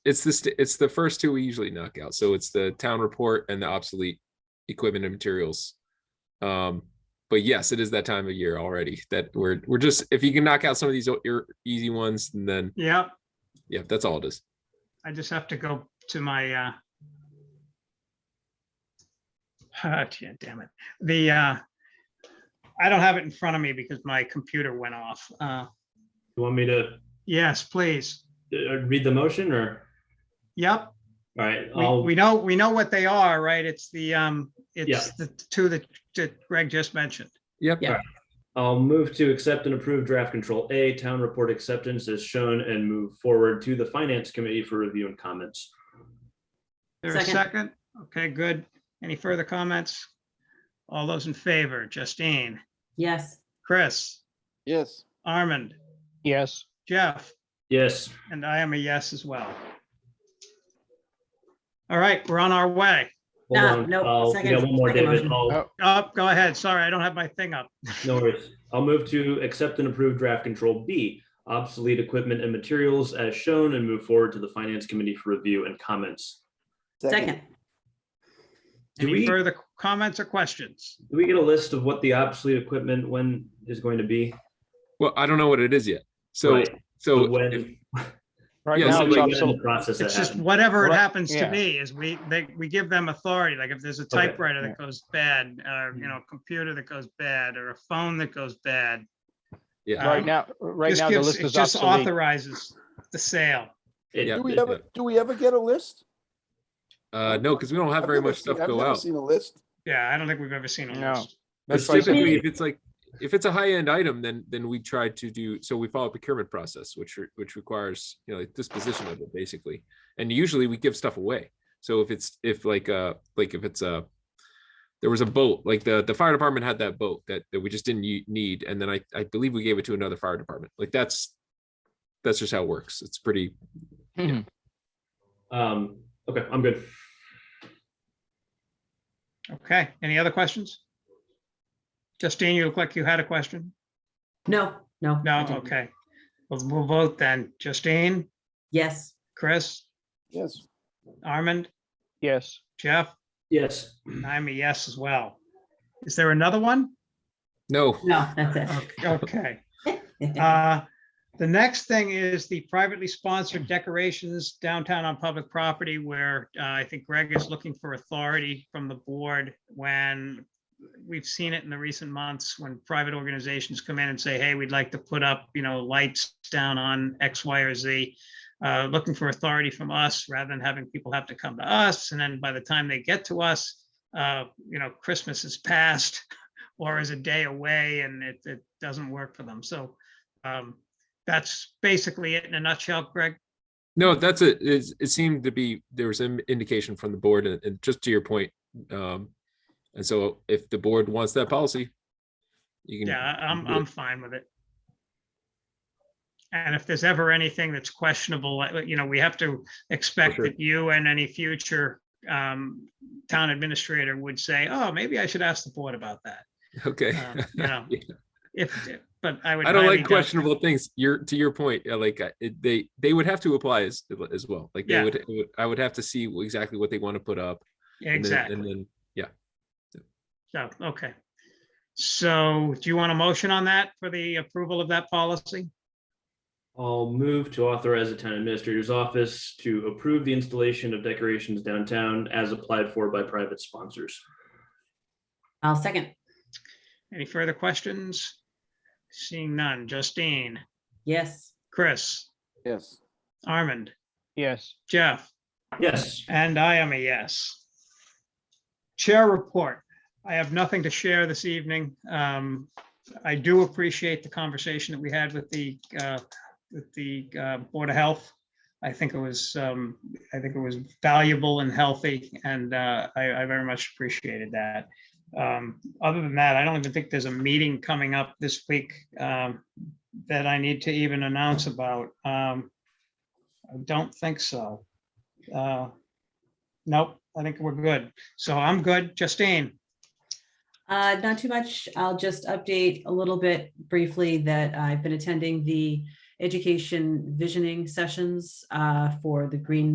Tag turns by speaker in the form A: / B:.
A: it's this it's the first two we usually knock out. So it's the town report and the obsolete equipment and materials. Um, but yes, it is that time of year already that we're we're just if you can knock out some of these o- your easy ones, then
B: Yep,
A: yeah, that's all it is.
B: I just have to go to my, uh, ah, gee, damn it, the, uh, I don't have it in front of me because my computer went off. Uh,
C: You want me to
B: yes, please.
C: uh, read the motion or?
B: Yep,
C: All right,
B: we,
C: I'll,
B: we know, we know what they are, right? It's the, um, it's the two that, that Greg just mentioned.
A: Yep.
D: Yeah.
C: I'll move to accept and approve draft control A, town report acceptance as shown and move forward to the finance committee for review and comments.
B: There a
D: Second.
B: second? Okay, good. Any further comments? All those in favor, Justine,
D: Yes,
B: Chris,
E: yes,
B: Armand,
F: yes,
B: Jeff,
C: Yes,
B: and I am a yes as well. All right, we're on our way.
C: hold
D: No,
C: on.
D: no,
C: I'll- We
D: Ah, second-
C: got one more,
D: second
C: David.
D: motion.
C: I'll-
B: Oh. Up, go ahead. Sorry, I don't have my thing up.
C: No worries. I'll move to accept and approve draft control B, obsolete equipment and materials as shown and move forward to the finance committee for review and comments.
E: second,
D: second.
C: Do
B: Any
C: we-
B: further comments or questions?
C: Do we get a list of what the obsolete equipment when is going to be?
A: Well, I don't know what it is yet. So
C: Right.
A: so
C: When-
A: if-
F: right
A: Yeah,
F: now
A: so
C: when
F: it's
A: like-
C: the
F: obsolete.
C: Process that
B: It's just
C: happened.
B: whatever it
F: Right,
B: happens to
F: yeah.
B: be is we, they, we give them authority. Like if there's a typewriter that goes bad,
F: Hmm.
B: or, you know, a computer that goes bad, or a phone that goes bad.
A: yeah.
B: um,
F: Right now, right
B: just
F: now, the
B: gives-
F: list
B: it
F: is
B: just
F: obsolete.
B: Authorizes the sale.
C: It-
A: Yeah.
E: Do we
C: it-
E: ever, do we ever get a list?
A: Uh, no, because we don't have
E: I've
A: very
E: never
A: much
E: seen-
A: stuff
E: I've
A: go
E: never
A: out.
E: Seen a list?
B: Yeah, I don't think we've ever seen a
F: No.
B: list.
A: It's
C: Precisely.
A: typically if it's like if it's a high end item, then then we try to do so we follow a procurement process, which re- which requires you know like disposition of it basically, and usually we give stuff away. So if it's if like uh like if it's a there was a boat like the the fire department had that boat that that we just didn't u- need, and then I I believe we gave it to another fire department. Like that's that's just how it works. It's pretty
F: Mhm.
C: Um, okay, I'm good.
B: Okay, any other questions? Justine, you look like you had a question?
D: No, no. I
B: No,
D: didn't.
B: okay. We'll, we'll vote then. Justine,
D: Yes,
B: Chris,
E: Yes,
B: Armand,
F: Yes,
B: Jeff,
C: Yes,
B: and I'm a yes as well. Is there another one?
A: no
D: no, that's it.
B: Okay, Okay. Uh, The next thing is the privately sponsored decorations downtown on public property where uh, I think Greg is looking for authority from the board when we've seen it in the recent months when private organizations come in and say, hey, we'd like to put up, you know, lights down on X, Y, or Z. uh, Looking for authority from us rather than having people have to come to us. And then by the time they get to us, uh, you know, Christmas is past or is a day away and it, it doesn't work for them. So um, that's basically it in a nutshell, Greg.
A: No, that's a, it's- it seemed to be, there was an indication from the board and, and just to your point. um, And so if the board wants that policy, you
B: Yeah,
A: can,
B: I- I'm,
A: Yeah.
B: I'm fine with it. And if there's ever anything that's questionable, like, you know, we have to expect
A: sure.
B: that you and any future um, town administrator would say, oh, maybe I should ask the board about that.
A: okay.
B: Uh, You know,
A: Yeah.
B: if, but I would.
A: I don't
B: highly
A: like
B: doubt-
A: questionable things. Your to your point, yeah, like I- it- they, they would have to apply as, as well. Like they
B: Yeah.
A: would, it would- I would have to see exactly what they want to put up. and then-
B: Exactly.
A: And then,
B: So, okay. So do you want a motion on that for the approval of that policy?
C: I'll move to authorize the town administrator's office to approve the installation of decorations downtown as applied for by private sponsors.
D: I'll second.
B: Any further questions? Seeing none. Justine,
D: Yes,
B: Chris,
E: yes,
B: Armand,
F: yes.
B: Jeff,
C: Yes,
B: and I am a yes. Chair report. I have nothing to share this evening. Um, I do appreciate the conversation that we had with the, uh, with the uh, Board of Health. I think it was, um, I think it was valuable and healthy, and uh, I I very much appreciated that. Um, Other than that, I don't even think there's a meeting coming up this week um, that I need to even announce about. Um, I don't think so. Uh, Nope, I think we're good. So I'm good. Justine,
D: uh, not too much. I'll just update a little bit briefly that I've been attending the education visioning sessions uh, for the Green